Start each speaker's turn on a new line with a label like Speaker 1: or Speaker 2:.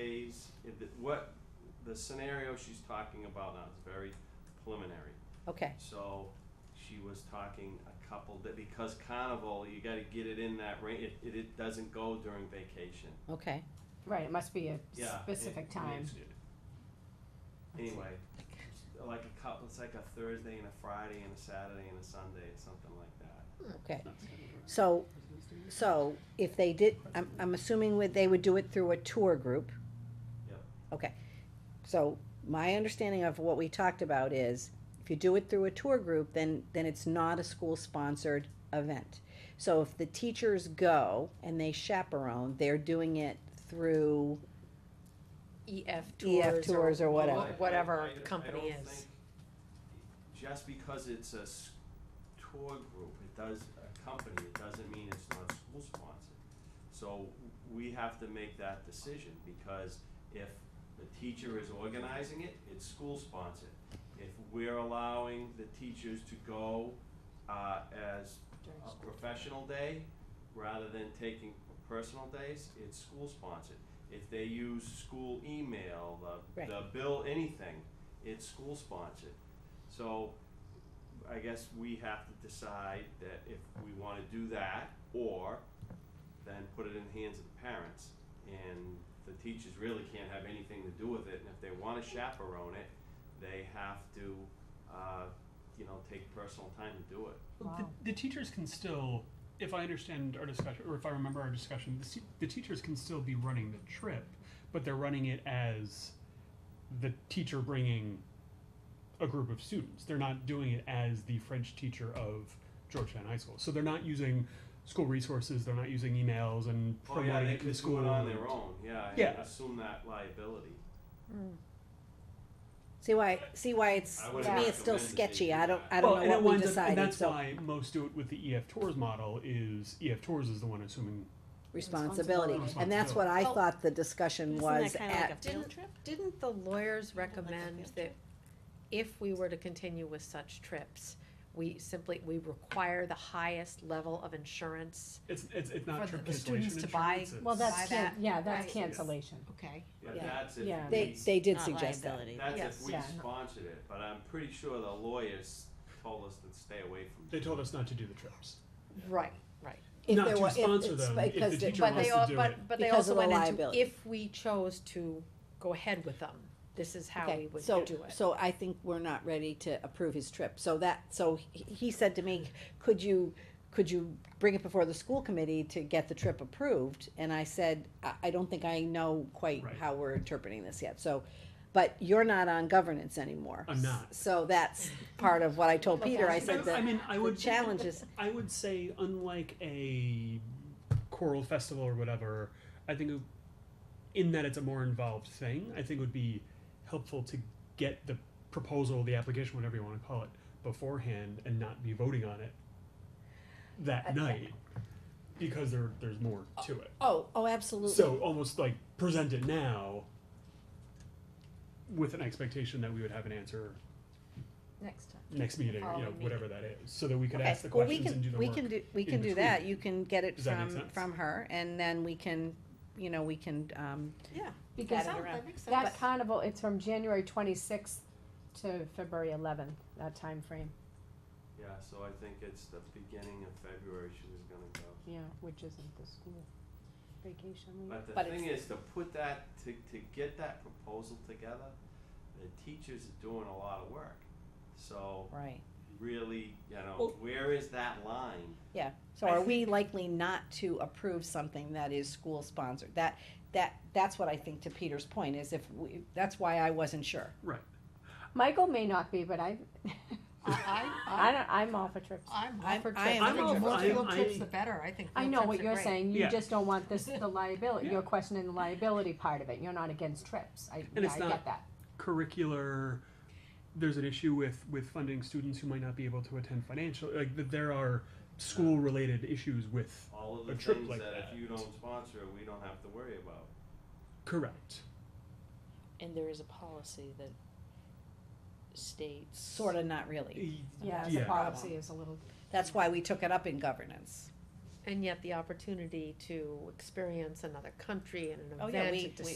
Speaker 1: she's, what, the scenario she's talking about now is very preliminary.
Speaker 2: Okay,
Speaker 1: So she was talking a couple that because carnival, you gotta get it in that range. It, it, it doesn't go during vacation.
Speaker 2: okay.
Speaker 3: Right, it must be a
Speaker 1: Yeah. it-
Speaker 3: specific
Speaker 1: it
Speaker 3: time.
Speaker 1: makes it- Anyway, like a couple, it's like a Thursday and a Friday and a Saturday and a Sunday, something like that.
Speaker 2: Okay, so, so if they did, I'm, I'm assuming would, they would do it through a tour group?
Speaker 1: Yep.
Speaker 2: Okay, so my understanding of what we talked about is, if you do it through a tour group, then, then it's not a school-sponsored event. So if the teachers go and they chaperone, they're doing it through,
Speaker 4: EF
Speaker 2: EF
Speaker 4: E tours or.
Speaker 2: E tours or whatever.
Speaker 1: Well, I- I-
Speaker 4: Whatever
Speaker 1: I- I
Speaker 4: the company
Speaker 1: don't
Speaker 4: is.
Speaker 1: think- Just because it's a s- tour group, it does, a company, it doesn't mean it's not school sponsored. So we have to make that decision, because if the teacher is organizing it, it's school sponsored. If we're allowing the teachers to go, uh, as
Speaker 4: During
Speaker 1: a professional day, rather than taking personal days, it's school sponsored. If they use school email, the,
Speaker 2: Right.
Speaker 1: the bill, anything, it's school sponsored. So I guess we have to decide that if we wanna do that, or then put it in the hands of the parents. And the teachers really can't have anything to do with it, and if they wanna chaperone it, they have to, uh, you know, take personal time to do it.
Speaker 5: Well, The, the teachers can still, if I understand our discussion, or if I remember our discussion, the, se- the teachers can still be running the trip, but they're running it as the teacher bringing a group of students. They're not doing it as the French teacher of Georgetown High School. So they're not using school resources, they're not using emails and
Speaker 1: Oh
Speaker 5: promoting
Speaker 1: yeah, they
Speaker 5: it to the
Speaker 1: could
Speaker 5: school.
Speaker 1: do it on their own, yeah, and
Speaker 5: Yeah.
Speaker 1: assume that liability.
Speaker 2: see why, see why it's,
Speaker 1: I
Speaker 2: to
Speaker 1: wouldn't
Speaker 2: me, it's still
Speaker 1: recommend that they
Speaker 2: sketchy,
Speaker 1: do
Speaker 2: I don't,
Speaker 1: that.
Speaker 2: I don't
Speaker 5: well, and,
Speaker 2: know what
Speaker 5: it
Speaker 2: we
Speaker 5: winds up- and
Speaker 2: decided,
Speaker 5: that's
Speaker 2: so
Speaker 5: why most do it with the EF Tours model is EF Tours is the one assuming
Speaker 2: responsibility.
Speaker 5: Responsibility.
Speaker 2: And that's what I
Speaker 4: Well,
Speaker 2: thought the discussion was at,
Speaker 4: Didn't- Didn't the lawyers recommend that if we were to continue with such trips, we simply, we require the highest level of insurance?
Speaker 5: it's it's, it's not
Speaker 4: For the-
Speaker 5: trip
Speaker 4: the
Speaker 5: cancellation
Speaker 4: students to buy-
Speaker 5: insurance, it's-
Speaker 3: Well,
Speaker 4: Buy
Speaker 3: that's, can-
Speaker 4: that,
Speaker 3: yeah, that's
Speaker 4: right.
Speaker 3: cancellation.
Speaker 4: Okay.
Speaker 1: But
Speaker 2: Yeah.
Speaker 1: that's if
Speaker 3: Yeah.
Speaker 2: they,
Speaker 1: we,
Speaker 2: they did
Speaker 6: Not
Speaker 2: suggest that.
Speaker 6: liability.
Speaker 1: that's
Speaker 4: Yes.
Speaker 1: if we
Speaker 3: Yeah.
Speaker 1: sponsored it, but I'm pretty sure the lawyers told us to stay away from.
Speaker 5: They told us not to do the trips.
Speaker 4: Right, right.
Speaker 2: If
Speaker 5: Not
Speaker 2: there
Speaker 5: to
Speaker 2: were- if
Speaker 5: sponsor
Speaker 2: it's
Speaker 5: them, if
Speaker 2: because
Speaker 5: the
Speaker 2: the-
Speaker 5: teacher
Speaker 2: but
Speaker 4: But
Speaker 5: wants
Speaker 4: they
Speaker 2: they-
Speaker 5: to
Speaker 4: all,
Speaker 5: do
Speaker 4: but,
Speaker 5: it.
Speaker 4: but they
Speaker 2: Because
Speaker 4: also
Speaker 2: of the
Speaker 4: went into,
Speaker 2: liability.
Speaker 4: if we chose to go ahead with them, this is how we
Speaker 2: Okay,
Speaker 4: would do
Speaker 2: so,
Speaker 4: it.
Speaker 2: so I think we're not ready to approve his trip, so that, so he, he said to me, could you, could you bring it before the school committee to get the trip approved? And I said, I, I don't think I know quite
Speaker 5: Right.
Speaker 2: how we're interpreting this yet, so, but you're not on governance anymore.
Speaker 5: I'm not.
Speaker 2: So that's part of what I told Peter, I said
Speaker 5: I
Speaker 2: that
Speaker 5: mean, I
Speaker 2: the
Speaker 5: would
Speaker 2: challenge is,
Speaker 5: I would say, unlike a choral festival or whatever, I think in that it's a more involved thing. I think it would be helpful to get the proposal, the application, whatever you want to call it, beforehand, and not be voting on it that night because there there's more to it.
Speaker 2: oh, oh, absolutely.
Speaker 5: So almost like present it now with an expectation that we would have an answer
Speaker 4: Next time.
Speaker 5: next meeting, you
Speaker 4: Following
Speaker 5: know,
Speaker 4: meeting.
Speaker 5: whatever that is, so that we could
Speaker 2: Okay,
Speaker 5: ask the
Speaker 2: well, we
Speaker 5: questions and do
Speaker 2: can,
Speaker 5: the
Speaker 2: we
Speaker 5: work.
Speaker 2: can do, we
Speaker 5: in
Speaker 2: can do
Speaker 5: between.
Speaker 2: that, you can get it
Speaker 5: Does that make
Speaker 2: from,
Speaker 5: sense?
Speaker 2: from her, and then we can, you know, we can, um,
Speaker 4: Yeah.
Speaker 3: Because
Speaker 2: That-
Speaker 3: that carnival, it's from January twenty-sixth to February eleventh, that time frame.
Speaker 1: Yeah, so I think it's the beginning of February she was gonna go.
Speaker 3: yeah, which isn't the school vacation week.
Speaker 1: But the
Speaker 2: But
Speaker 1: thing is, to put that, to, to get that proposal together, the teachers are doing a lot of work. So
Speaker 2: right.
Speaker 1: really, you know,
Speaker 5: Well-
Speaker 1: where is that line?
Speaker 2: Yeah, so
Speaker 5: I
Speaker 2: are we likely not to approve something that is school sponsored? That, that, that's what I think to Peter's point is if we, that's why I wasn't sure.
Speaker 5: Right.
Speaker 3: Michael may not be, but I,
Speaker 4: I,
Speaker 3: I don't, I'm all for trips.
Speaker 4: I'm
Speaker 2: all for trips.
Speaker 5: I'm all for-
Speaker 4: field
Speaker 5: I-
Speaker 4: trips,
Speaker 5: I-
Speaker 4: the better, I think.
Speaker 3: I
Speaker 4: field
Speaker 3: know
Speaker 4: trips
Speaker 3: what
Speaker 4: are
Speaker 3: you're
Speaker 4: great.
Speaker 3: saying, you
Speaker 5: Yeah.
Speaker 3: just don't want this, the liability,
Speaker 5: Yeah.
Speaker 3: you're questioning the liability part of it, you're not against trips, I, yeah,
Speaker 5: it's
Speaker 3: I
Speaker 5: not-
Speaker 3: get that.
Speaker 5: Curricular, there's an issue with, with funding students who might not be able to attend financial, like, th- there are school-related issues with,
Speaker 1: All of
Speaker 5: A
Speaker 1: the
Speaker 5: trip
Speaker 1: things
Speaker 5: like
Speaker 1: that if
Speaker 5: that.
Speaker 1: you don't sponsor, we don't have to worry about.
Speaker 5: correct.
Speaker 6: And there is a policy that states.
Speaker 2: Sorta not really.
Speaker 3: Yeah, the
Speaker 5: Yeah.
Speaker 3: policy is a little,
Speaker 2: That's why we took it up in governance.
Speaker 4: And yet the opportunity to experience another country and an
Speaker 2: Oh,
Speaker 4: event
Speaker 2: yeah,
Speaker 4: and
Speaker 2: we-
Speaker 4: to
Speaker 2: we-